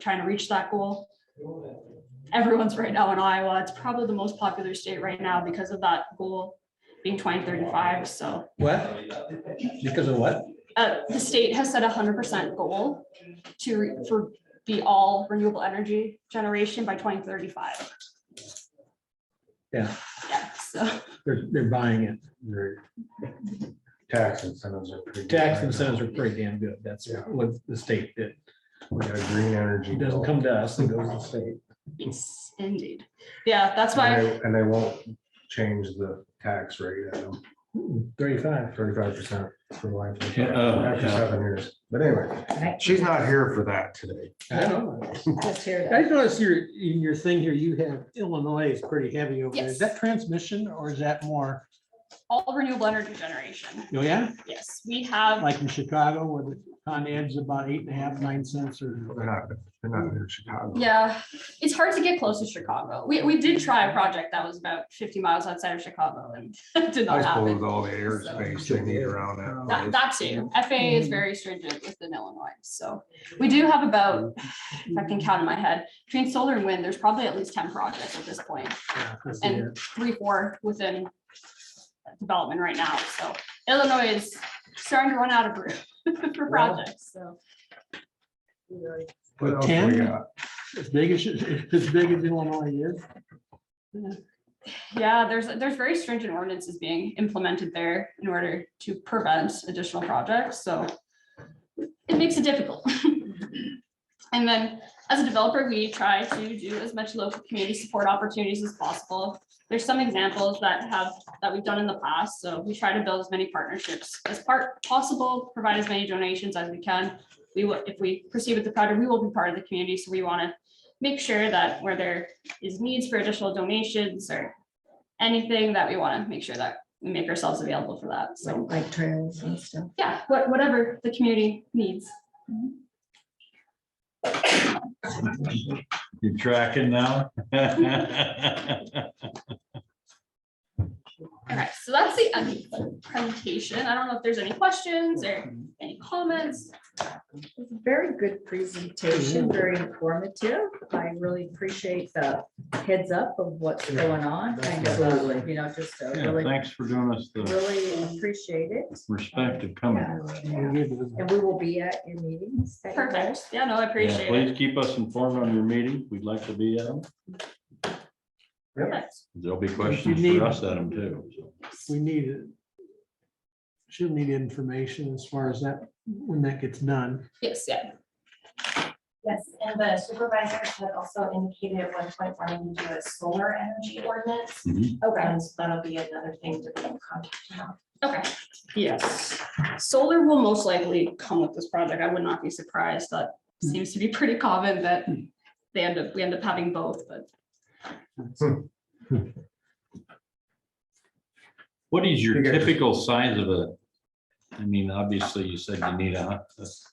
trying to reach that goal. Everyone's right now in Iowa. It's probably the most popular state right now because of that goal being twenty thirty-five, so. What? Because of what? Uh, the state has set a hundred percent goal to, re- for, be all renewable energy generation by twenty thirty-five. Yeah. Yeah, so. They're, they're buying it. Your Tax incentives are pretty. good Tax right incentives now. are pretty damn good. That's what the state did. We got a green energy. It doesn't bill. come to us, it goes to the state. Yes, indeed. Yeah, that's And why, they- and they won't change the tax rate at them, Thirty-five. thirty-five percent for life. Yeah, oh, After yeah. seven years. But anyway, Right, she's not here for that today. I don't know. just here I to- noticed your, in your thing here, you have Illinois is pretty heavy over there. Is Yes. that transmission or is that more, all renewable energy generation, oh yeah, yes, we have, like in Chicago where the con ed's about eight and a half, nine cents or? They're not, they're not in Chicago. yeah, it's hard to get close to Chicago. We, we did try a project that was about fifty miles outside of Chicago and it did I not suppose with happen. all the airspace they need around That, that. that too, FAA is very stringent within Illinois, so we do have about, if I can count in my head, between solar and wind, there's probably at least ten projects at this point. Yeah, I see and three, four within development right now, so Illinois is starting to run out of room for projects, so. What else we Ten? got? that. As big as, as big as Illinois is. Yeah, there's, there's very stringent ordinances being implemented there in order to prevent additional projects, so it makes it difficult. And then, as a developer, we try to do as much local community support opportunities as possible. There's some examples that have, that we've done in the past, so we try to build as many partnerships as part possible, provide as many donations as we can. We will, if we proceed with the project, we will be part of the community, so we want to make sure that where there is needs for additional donations or anything that we want to make sure that we make ourselves available for that. So, Like trails and stuff. yeah, what- whatever the community needs. You tracking now? Okay, so that's the end of the presentation. I don't know if there's any questions or any comments. Very good presentation, very informative. I really appreciate the heads up of what's Yeah. going on. Kind of, uh, you know, just uh, Yeah, really, Thanks for doing us the really appreciate it. respect of coming. here. Yeah. And we will be at your meetings. that you Perfect. Yeah, no, I Yeah, appreciate it. Please keep us informed on your meeting. We'd like to be at them. Perfect. There'll be questions need- for us at them too. so. We need it. She'll need information as far as that, when that gets done. Yes, yeah. Yes, and the supervisors had also indicated at one point wanting to do a solar energy ordinance. Mhm. Okay. So that'll be another thing to be in contact about. Okay. Yes. Solar will most likely come with this project. I would not be surprised. That seems to be pretty common that they end up, we end up having both, but What is your You guys- typical size of a? I mean, obviously you said you need a,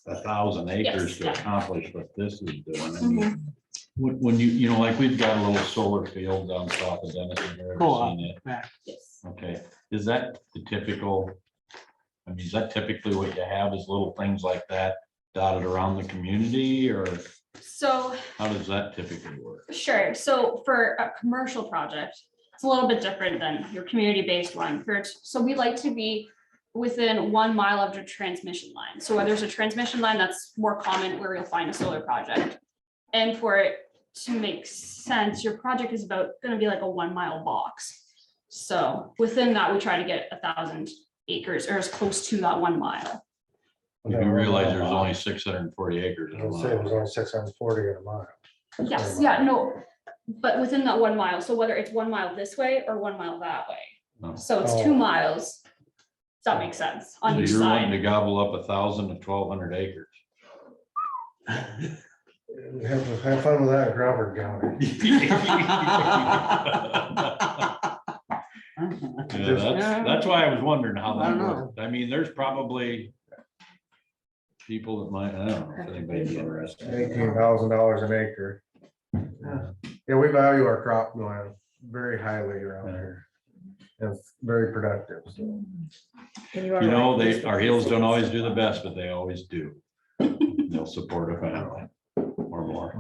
a thousand acres to yeah. Mm-hmm. accomplish what this is doing. I mean, When, when you, you know, like we've got a little solar field down south of Dennis. if you've ever Co-op. seen it. yes. Okay, is that the typical? I mean, is that typically what you have is little things like that dotted around the community or So how does that typically work? Sure. So for a commercial project, it's a little bit different than your community-based one. For- So we like to be within one mile of the transmission line. So where there's a transmission line, that's more common where you'll find a solar project. And for it to make sense, your project is about gonna be like a one-mile box. So within that, we try to get a thousand acres or as close to that one mile. You realize there's only six hundred and forty acres. in a I'll say it was lot. only six hundred and forty in a mile. Yes, yeah, no, but within that one mile, so whether it's one mile this way or one mile that way. Oh. So it's two Oh. miles. Does that make sense on So each You're wanting to side? gobble up a thousand to twelve hundred acres. Have, have fun with that in Crawford County. Yeah, That's that's why I was wondering how I that don't know. worked. I mean, there's probably people that might, I don't know if anybody's interested. Eighteen thousand dollars an acre. Yeah, we value our cropland very highly around here. And It's very productive. so. And are You know, right, they, just- our heels don't always do the best, but they always do. They'll support a family or more.